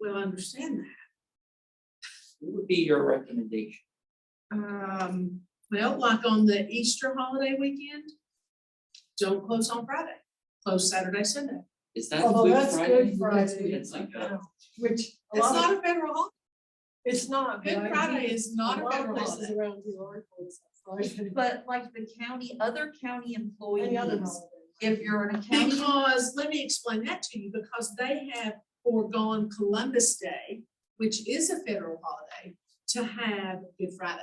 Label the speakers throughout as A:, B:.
A: Well, I understand that.
B: What would be your recommendation?
A: Um, well, like on the Easter holiday weekend, don't close on Friday, close Saturday, Sunday.
B: Is that
C: Although
B: Good
C: that's
B: Friday?
C: Good Friday.
B: It's like a,
C: Which a
A: It's
C: lot
A: not
C: of,
A: a federal holiday.
C: it's not. but I
A: Good Friday
C: think
A: is not a
C: lot of
A: federal
C: places
A: holiday.
C: Around here are closed on Friday.
D: But like the county, other county
C: Any other
D: employees,
C: holiday.
D: if you're an county,
A: Because, let me explain that to you, because they have foregone Columbus Day, which is a federal holiday, to have Good Friday,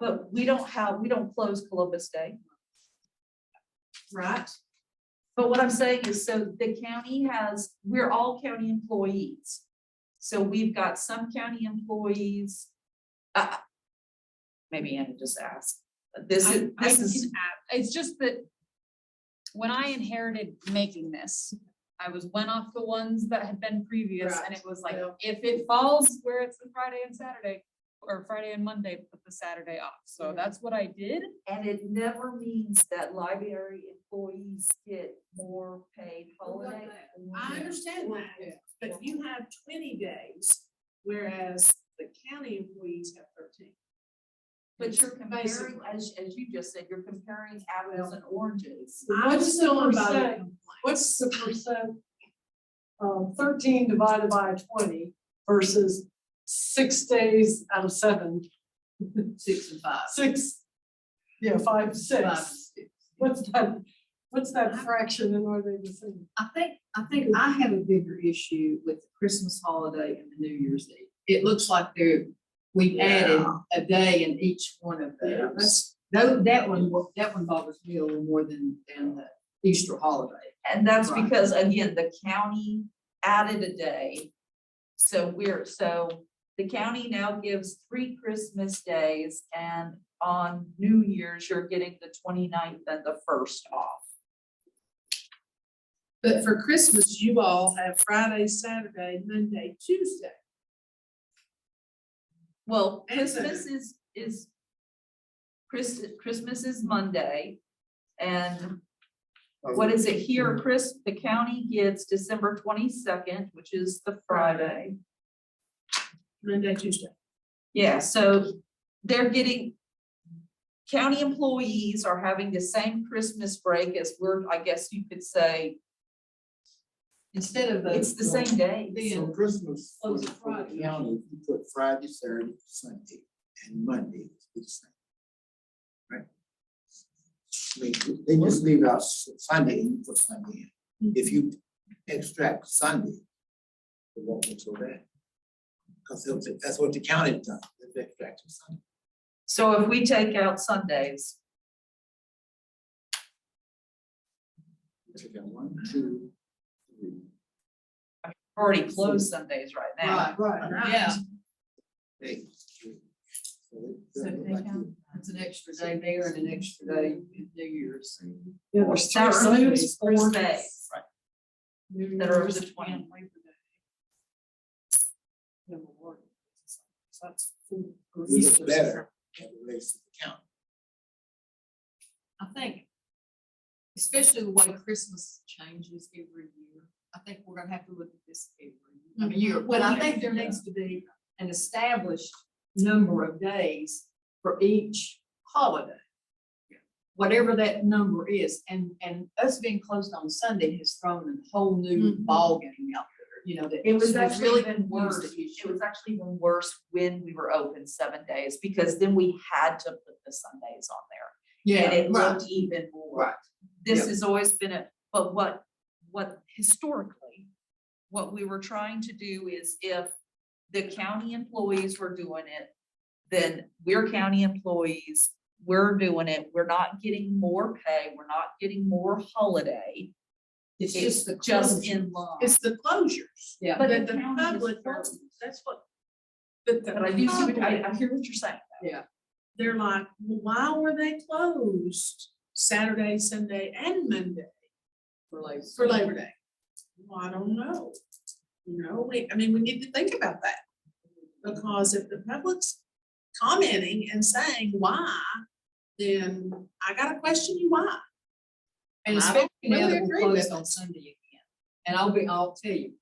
D: but we don't have, we don't close Columbus Day.
A: right?
D: But what I'm saying is, so the county has, we're all county employees. So we've got some county employees. uh, Maybe Anna just asked, this is,
E: I- I
D: this is,
E: it's just that when I inherited making this, I was went off the ones that had been previous and it was like,
A: Right,
E: if it falls where it's the Friday and Saturday, or Friday and Monday, put the Saturday off. So
C: Mhm.
E: that's what I did.
D: and it never means that library employees get more paid holiday.
A: I understand that, but you have twenty days, whereas the county employees have thirteen.
D: But you're comparing,
A: Basically.
D: as, as you just said, you're comparing apples and oranges.
A: I'm
C: What's
A: still
C: the
A: about it.
C: percent? What's the percent? Um, thirteen divided by twenty versus six days out of seven,
A: Six and five.
C: six, yeah, five,
A: Five and
C: six.
A: six.
C: What's that, what's that fraction and are they the same?
F: I think, I think I have a bigger issue with the Christmas holiday and the New Year's Eve. It looks like they're, we've added a day in each one of
A: Yeah,
F: those. Though, that one, wa- that one bothers me a little more than, than the Easter holiday.
D: And that's
F: Right.
D: because, again, the county added a day. So we're, so the county now gives three Christmas days and on New Year's, you're getting the 29th and the first off.
A: But for Christmas, you all have Friday, Saturday, Monday, Tuesday.
D: Well,
A: And so-
D: Christmas is, is Christ, Christmas is Monday. And what is it here, Chris? The county gets December twenty-second, which is the Friday.
A: Monday, Tuesday.
D: Yeah, so they're getting. County employees are having the same Christmas break as we're, I guess you could say,
F: Instead of the.
D: it's the same day.
B: so Christmas
A: Oh,
B: for
A: it's
B: the for
A: Friday.
B: the county, if you put Friday, Saturday, Sunday, and Monday, it's the same. Right? I mean, They just leave out S- Sunday, and you put Sunday in. If you extract Sunday, it won't look so bad. Because that's what the county does, they extract Sunday.
D: So if we take out Sundays,
B: Take out one, two, three.
D: we're already closed Sundays right now.
C: Right.
F: Yeah,
B: Hey. So
F: so they
B: it look like
F: count.
B: you-
F: it's an extra day there and an extra day in New Year's.
C: Yeah, there's three
D: That removes
C: Sundays,
D: four
C: four
D: days
C: New
D: that are
C: Year's
D: the
C: and
D: 20th.
C: Labor Day. Number one. So That's. four.
B: you look Better, at the race to the county.
F: I think, especially the way Christmas changes every year, I think we're gonna have to look at this every year. I mean, year.
D: Mm-hmm.
F: Well, I think there needs to be an established number of days for each holiday. Whatever that number is, and, and us being closed on Sunday has thrown a whole new
A: Mhm.
F: ballgame out there, you know, that.
D: Mm-hmm. It was
F: it's
D: actually
F: really
D: even worse.
F: confused the
D: It
F: issue.
D: was actually even worse when we were open seven days because then we had to put the Sundays on there.
F: Yeah,
D: And it
F: right,
D: looked even more.
F: Right.
D: This
F: Yep.
D: has always been a, but what, what historically, what we were trying to do is if the county employees were doing it, then we're county employees, we're doing it, we're not getting more pay, we're not getting more holiday.
F: it's just the.
D: Just
F: closure.
D: in line.
A: It's the closures.
F: Yeah.
D: But
A: That
D: the
A: the
D: county is
A: public,
D: closed.
A: that's what. But the
D: But I do see, what- I,
A: public,
D: I hear what you're saying.
A: they're like, "Well, why were they closed Saturday, Sunday, and Monday
F: for like-
A: for Labor Day? Well, I don't know. You know, we, I mean, we need to think about that. Because if the public's commenting and saying why, then I gotta question you why.
F: And
A: I don't
F: especially now
A: really
F: that we're
A: agree with
F: closed on Sunday again. And I'll be, I'll tell you,